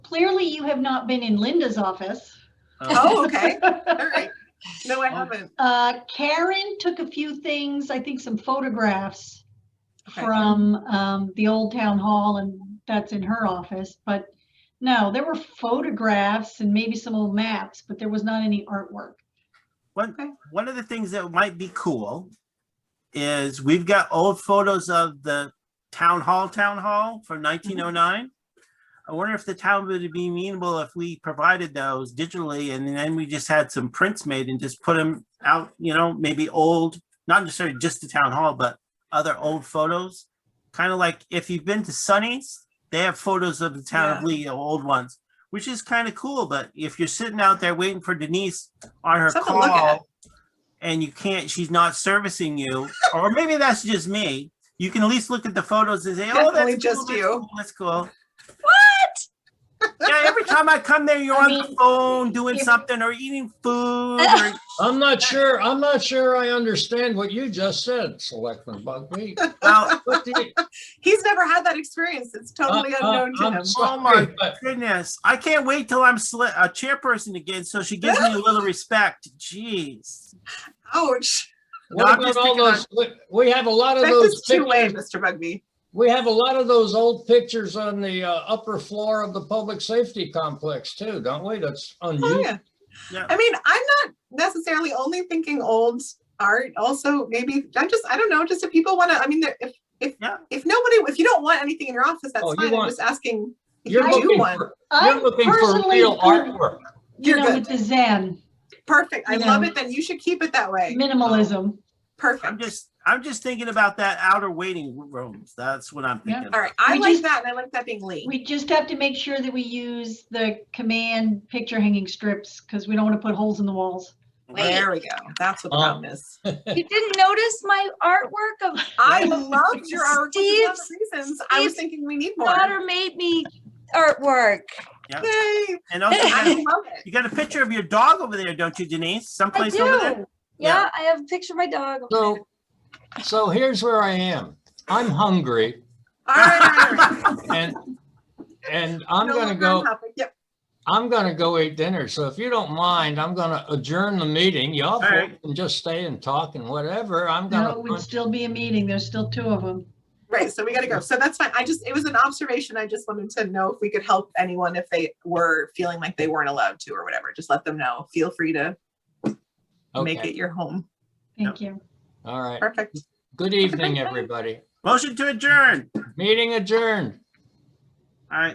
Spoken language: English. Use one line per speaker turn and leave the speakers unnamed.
clearly you have not been in Linda's office.
Um,
Oh, okay. All right. No, I haven't.
Uh, Karen took a few things, I think some photographs
Okay.
from um, the old town hall, and that's in her office. But no, there were photographs and maybe some old maps, but there was not any artwork.
Okay.
One, one of the things that might be cool is we've got old photos of the town hall, town hall
Mm-hmm.
from nineteen oh nine. I wonder if the town would be amenable if we provided those digitally and then we just had some prints made and just put them out, you know, maybe old, not necessarily just the town hall, but other old photos. Kind of like if you've been to Sunny's, they have photos of the town of
Yeah.
Lee, old ones, which is kind of cool, but if you're sitting out there waiting for Denise on her
Something to look at.
call and you can't, she's not servicing you, or maybe that's just me. You can at least look at the photos and say, oh,
Definitely
that's
just
just
you."
you. That's cool. What? Yeah, every time I come there, you're
I
on the
mean,
phone doing
you-
something or eating food or
I'm not sure, I'm not sure I understand what you just said, Selectman Bugby.
well,
What do you-
He's never had that experience. It's totally
I- I-
unknown to
Uh, I'm
him.
sorry, but
goodness. I can't wait till I'm sli- a chairperson again, so she gives me a little respect. Jeez.
Ouch.
No,
What
I'm just
about all
picking on-
those, we- we have a lot of
That
those
is too late,
pictures,
Mr. Bugby.
we have a lot of those old pictures on the uh, upper floor of the public safety complex too, don't we? That's
Oh,
unusual.
yeah.
Yeah.
I mean, I'm not necessarily only thinking old art. Also, maybe I'm just, I don't know, just if people want to, I mean, there- if, if,
Yeah.
if nobody, if you don't want anything in your office, that's
Oh, you
fine. I'm
want-
just asking. if
You're
you do
looking
want-
for,
I'm
you're looking for
personally
real
good,
artwork.
You
You're
know, with
good.
the Zen
Perfect. I
you
love
know.
it. Then you should keep it that way.
minimalism.
I'm
Perfect.
just I'm just thinking about that outer waiting rooms. That's what I'm
Yeah.
thinking.
All right. I
We
like
just-
that. And I like that being late.
We just have to make sure that we use the command picture hanging strips because we don't want to put holes in the walls.
There we go. That's what the
Um,
problem is.
You didn't notice my artwork of
I loved your artwork. for lots of
Steve's-
reasons. I was
Steve's
thinking we need more.
daughter made me artwork.
Yay.
And also, you
I
got,
love it.
you got a picture of your dog over there, don't you, Denise?
I
Someplace over there.
do. Yeah, I have a picture of my dog.
So, so here's where I am. I'm hungry
All right. all right, all right.
and, and I'm
No
gonna
longer
go.
on topic. Yep.
I'm gonna go eat dinner, so if you don't mind, I'm gonna adjourn the meeting. Y'all
All right.
can just stay and talk and whatever. I'm
No, it would
gonna,
still be a meeting. There's still two of them.
Right. So we got to go. So that's fine. I just, it was an observation. I just wanted to know if we could help anyone if they were feeling like they weren't allowed to or whatever. Just let them know. Feel free to make
okay,
it your home.
Thank you.
all right.
Perfect.
Good evening, everybody.
Motion to adjourn.
Meeting adjourned.